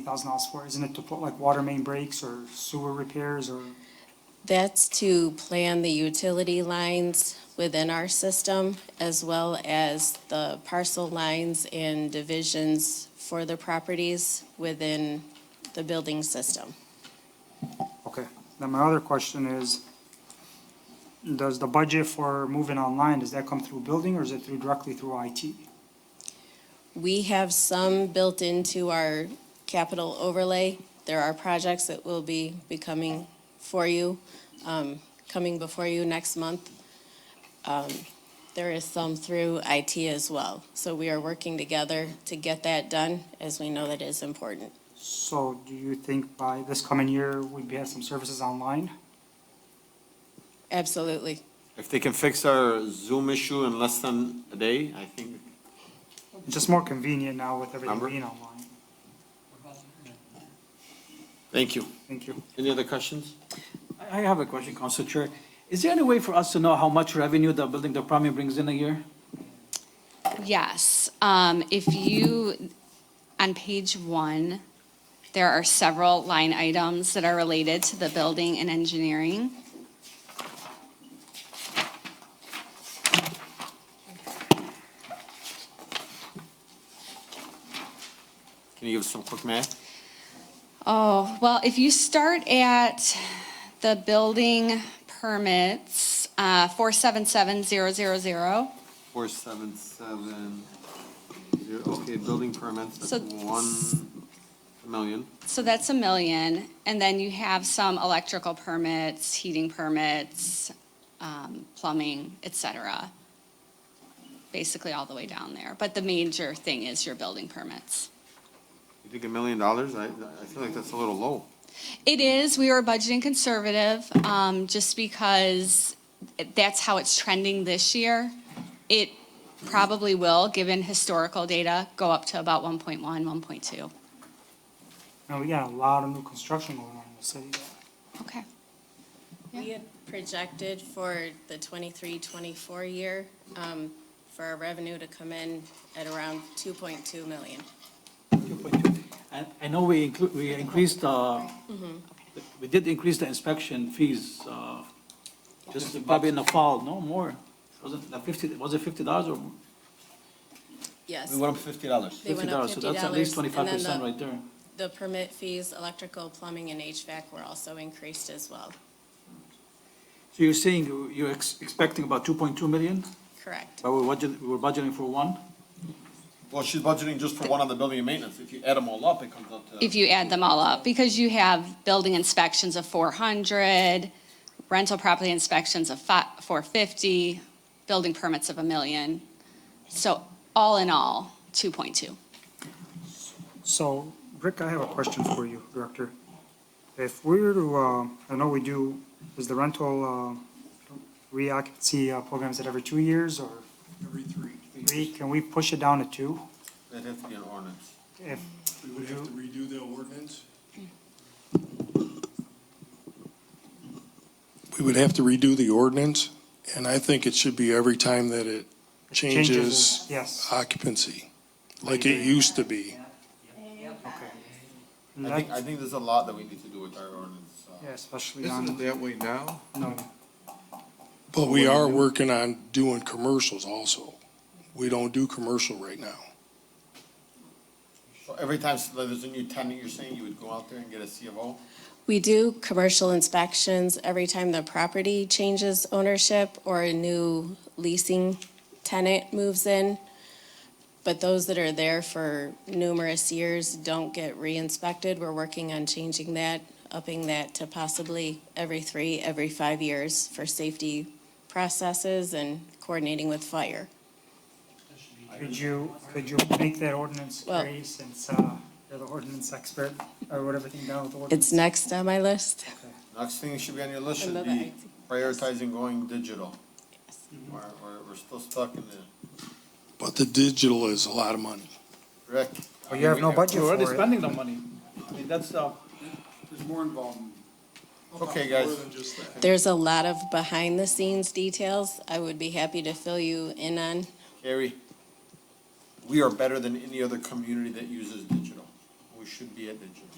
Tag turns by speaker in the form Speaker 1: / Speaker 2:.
Speaker 1: thousand dollars for, isn't it to put like water main breaks or sewer repairs or?
Speaker 2: That's to plan the utility lines within our system as well as the parcel lines and divisions for the properties within the building system.
Speaker 1: Okay, then my other question is, does the budget for moving online, does that come through building or is it through directly through IT?
Speaker 2: We have some built into our capital overlay. There are projects that will be becoming for you, um, coming before you next month. Um, There is some through IT as well. So we are working together to get that done, as we know that is important.
Speaker 1: So do you think by this coming year, we'd be have some services online?
Speaker 2: Absolutely.
Speaker 3: If they can fix our Zoom issue in less than a day, I think,
Speaker 1: It's just more convenient now with everything
Speaker 3: Number?
Speaker 1: being online.
Speaker 3: thank you.
Speaker 1: Thank you.
Speaker 3: Any other questions?
Speaker 4: I have a question, Council Chair. Is there any way for us to know how much revenue the building department brings in a year?
Speaker 5: Yes, um, if you, on page one, there are several line items that are related to the building and engineering.
Speaker 3: Can you give us some quick math?
Speaker 5: Oh, well, if you start at the building permits, uh, four seven seven zero zero zero,
Speaker 3: Four seven seven, zero, okay, building permits,
Speaker 5: So-
Speaker 3: that's one million.
Speaker 5: so that's a million. And then you have some electrical permits, heating permits, um, plumbing, et cetera. Basically all the way down there. But the major thing is your building permits.
Speaker 3: You think a million dollars? I, I feel like that's a little low.
Speaker 5: It is, we were budgeting conservative, um, just because that's how it's trending this year. It probably will, given historical data, go up to about 1.1, 1.2.
Speaker 1: Now, we got a lot of new construction going on in the city.
Speaker 5: Okay.
Speaker 2: We had projected for the 23-24 year, um, for our revenue to come in at around two point two million.
Speaker 4: And I know we inclu- we increased, uh, we did increase the inspection fees, uh, just probably in the fall, no more. Wasn't the fifty, was it fifty dollars or
Speaker 2: Yes.
Speaker 3: up fifty dollars.
Speaker 2: They
Speaker 4: fifty
Speaker 2: went up
Speaker 4: dollars? So that's at
Speaker 2: $50, and
Speaker 4: least twenty-five
Speaker 2: then
Speaker 4: percent
Speaker 2: the-
Speaker 4: right there.
Speaker 2: The permit fees, electrical, plumbing, and HVAC were also increased as well.
Speaker 4: So you're saying you- you're ex- expecting about two point two million,
Speaker 2: Correct.
Speaker 4: but we're budgeting, we were budgeting for one?
Speaker 3: Well, she's budgeting just for one on the building and maintenance. If you add them all up, it comes up
Speaker 5: If you add them all up, because you have building inspections of 400, rental property inspections of fi- 450, building permits of a million. So all in all, 2.2.
Speaker 1: So, Rick, I have a question for you, Director. If we were to, uh, I know we do, is the rental uh, reoccupancy uh, programs at every two years or
Speaker 6: Every three.
Speaker 1: three? Can we push it down to two?
Speaker 3: That has to be an ordinance.
Speaker 1: If,
Speaker 6: We would have to redo the ordinance? We would have to redo the ordinance, and I think it should be every time that it changes
Speaker 1: Yes.
Speaker 6: occupancy, like it used to be.
Speaker 1: And
Speaker 3: I think,
Speaker 1: that-
Speaker 3: I think there's a lot that we need to do with our ordinance. uh,
Speaker 1: Yeah, especially
Speaker 7: Isn't it
Speaker 1: on,
Speaker 7: that way now?
Speaker 1: no,
Speaker 6: But we are working on doing commercials also. We don't do commercial right now.
Speaker 3: So every time there's a new tenant, you're saying you would go out there and get a CFO?
Speaker 2: We do commercial inspections every time the property changes ownership or a new leasing tenant moves in. But those that are there for numerous years don't get re-inspected. We're working on changing that, upping that to possibly every three, every five years for safety processes and coordinating with fire.
Speaker 1: could you, could you make that ordinance
Speaker 2: Well-
Speaker 1: free since uh, you're the ordinance expert? I wrote everything down with the ordinance.
Speaker 2: It's next on my list.
Speaker 3: Next thing should be on your list
Speaker 2: I
Speaker 3: should
Speaker 2: love
Speaker 3: be
Speaker 2: IT.
Speaker 3: prioritizing going digital. We're, we're, we're still stuck in the,
Speaker 6: But the digital is a lot of money.
Speaker 3: Rick.
Speaker 1: Well, you have no budget
Speaker 4: You're
Speaker 1: for
Speaker 4: already
Speaker 1: it.
Speaker 4: spending the money. I mean, that's, uh,
Speaker 8: There's more involvement.
Speaker 3: Okay, guys,
Speaker 8: More than just that.
Speaker 2: There's a lot of behind-the-scenes details I would be happy to fill you in on.
Speaker 3: Gary, we are better than any other community that uses digital. We we should be at digital.